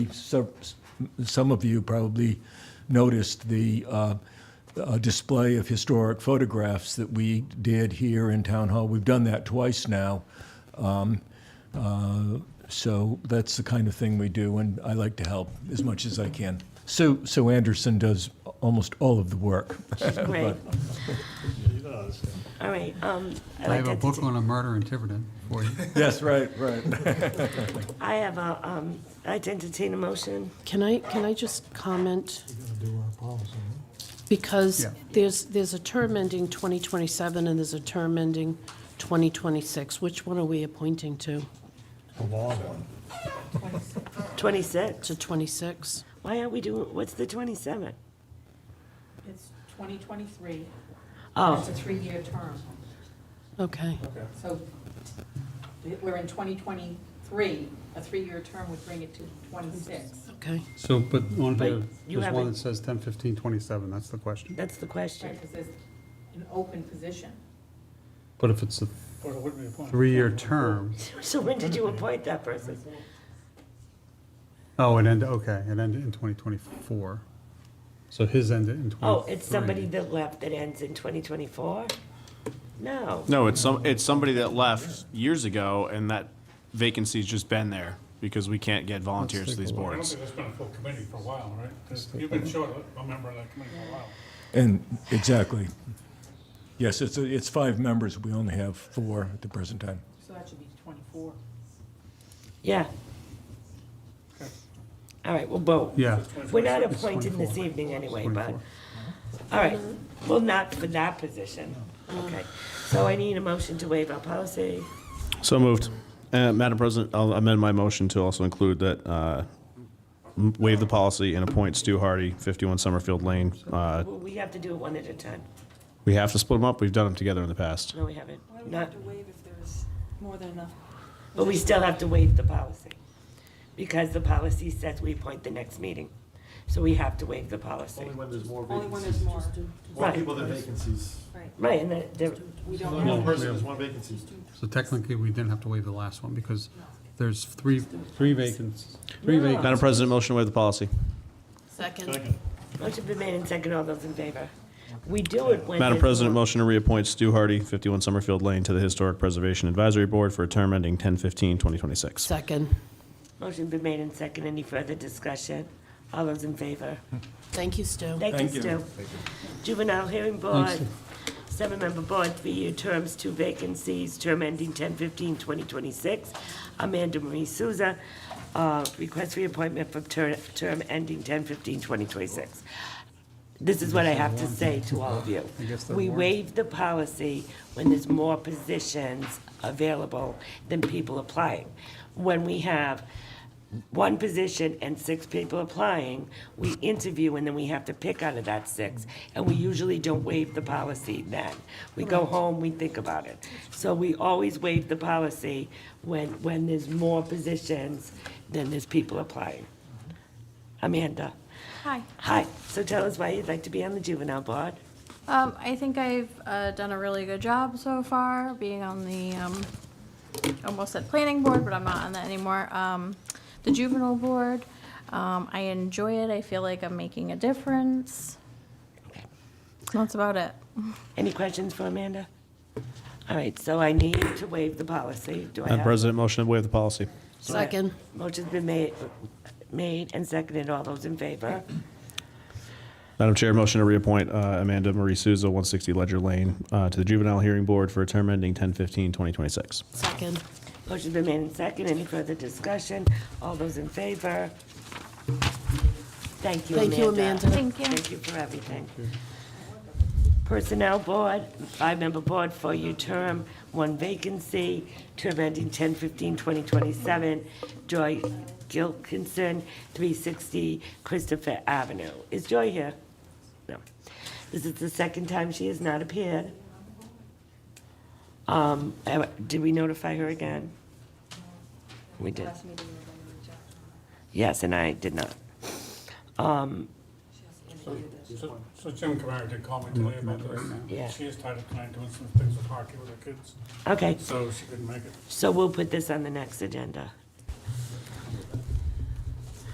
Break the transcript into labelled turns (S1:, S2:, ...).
S1: So- Some of you probably noticed the uh, uh, display of historic photographs that we did here in Town Hall. We've done that twice now. Um, uh, So that's the kind of thing we do, and I like to help as much as I can. Sue, Sue Anderson does almost all of the work.
S2: Right,
S3: He does.
S2: all right. um, I'd
S4: I
S2: like
S4: have a
S2: to
S4: book
S2: entertain-
S4: on a murder in Tiverton for you.
S1: Yes, right, right.
S2: I have a, um, I'd like to entertain a motion.
S5: Can I, can I just comment?
S3: We gotta do our policy,
S5: Because
S4: Yeah.
S5: there's, there's a term ending 2027 and there's a term ending 2026. Which one are we appointing to?
S3: the long one.
S2: 26,
S5: To 26?
S2: why aren't we doing, what's the 27?
S6: It's 2023. It's
S2: Oh,
S6: a three-year term.
S5: Okay.
S6: So t- we're in 2023. A three-year term would bring it to 26.
S5: Okay.
S4: So, but on
S2: But
S4: the,
S2: you
S4: there's
S2: haven't-
S4: one that says 10, 15, 27, that's the question.
S2: that's the
S6: Right,
S2: question.
S6: because there's an open position.
S4: But if it's a
S3: Or it wouldn't be appointed.
S4: three-year term,
S2: So when did you appoint that person?
S4: oh, it ended, okay, it ended in 2024. So his ended in 23.
S2: Oh, it's somebody that left that ends in 2024? No.
S7: No, it's some, it's somebody that left years ago and that vacancy's just been there because we can't get volunteers to
S4: take
S7: these
S4: a look.
S3: I don't
S7: boards.
S3: think that's been a full committee for a while, right? You've been short, a member of that committee for a while.
S1: And, exactly. Yes, it's, it's five members. We only have four at the present time.
S6: So that should be 24.
S2: Yeah. All right, well, vote.
S4: Yeah.
S2: We're not
S4: It's
S2: appointing this
S4: 24.
S2: evening anyway, but,
S4: 24.
S2: all right, well, not for that position. Okay, so I need a motion to waive our policy.
S7: So moved. Uh, Madam President, I'll amend my motion to also include that, uh, m- waive the policy and appoint Stu Hardy, 51 Summerfield Lane. Uh,
S2: Well, we have to do it one at a time.
S7: We have to split them up. We've done them together in the past.
S2: No, we haven't.
S8: Why would we
S2: Not,
S8: have to waive if there's more than enough?
S2: but we still have to waive the policy, because the policy says we appoint the next meeting. So we have to waive the policy.
S9: Only when there's more
S8: Only when
S9: vacancies.
S8: there's more,
S9: More
S2: Right.
S9: people than vacancies.
S8: right.
S2: Right, and that, there-
S8: We
S9: There's
S8: don't
S9: Only one
S8: have,
S9: person, there's one vacancy.
S4: Oh, So technically, we didn't have to waive the last one because there's three, three vacancies. Three
S2: No.
S4: vacancies.
S7: Madam President, motion to waive the policy.
S5: Second.
S2: motion been made and second, all those in favor. We do it when.
S7: Madam
S2: there's
S7: President,
S2: more-
S7: motion to reappoint Stu Hardy, 51 Summerfield Lane, to the Historic Preservation Advisory Board for a term ending 10/15/2026.
S5: Second.
S2: Motion been made and second. Any further discussion? All those in favor?
S5: Thank you, Stu.
S2: Thank
S1: Thank you.
S2: you, Stu. Juvenile Hearing Board, seven-member board, three-year terms, two vacancies, term ending 10/15/2026. Amanda Marie Souza, uh, request reappointment for ter- term ending 10/15/2026. This is what I have to say to all of you.
S4: guess that
S2: We
S4: warrants-
S2: waive the policy when there's more positions available than people applying. When we have one position and six people applying, we interview and then we have to pick out of that six. And we usually don't waive the policy then. We go home, we think about it. So we always waive the policy when, when there's more positions than there's people applying. Amanda?
S10: Hi.
S2: Hi, so tell us why you'd like to be on the juvenile board.
S10: Um, I think I've uh, done a really good job so far, being on the, um, almost at planning board, but I'm not on that anymore. Um, The juvenile board, um, I enjoy it. I feel like I'm making a difference. That's about it.
S2: Any questions for Amanda? All right, so I need to waive the policy. Do I
S7: Madam
S2: have?
S7: President, motion to waive the policy.
S2: do I-
S5: Second.
S2: Motion's been made, made and seconded. All those in favor?
S7: Madam Chair, motion to reappoint uh, Amanda Marie Souza, 160 Ledger Lane, uh, to the Juvenile Hearing Board for a term ending 10/15/2026.
S5: Second.
S2: Motion's been made and seconded. Any further discussion? All those in favor? Thank you, Amanda.
S5: Thank you, Amanda.
S10: Thank you.
S2: Thank you for everything. Personnel Board, five-member board, four-year term, one vacancy, term ending 10/15/2027. Joy Gilkinson, 360 Christopher Avenue. Is Joy here? No. This is the second time she has not appeared. Um, eh, Did we notify her again? We did. Yes, and I did not.
S3: So so Jim Kamara did call me today about this.
S2: Yeah.
S3: She is tied up tonight doing some things with hockey with her kids,
S2: Okay,
S3: so she couldn't make it.
S2: so we'll put this on the next agenda.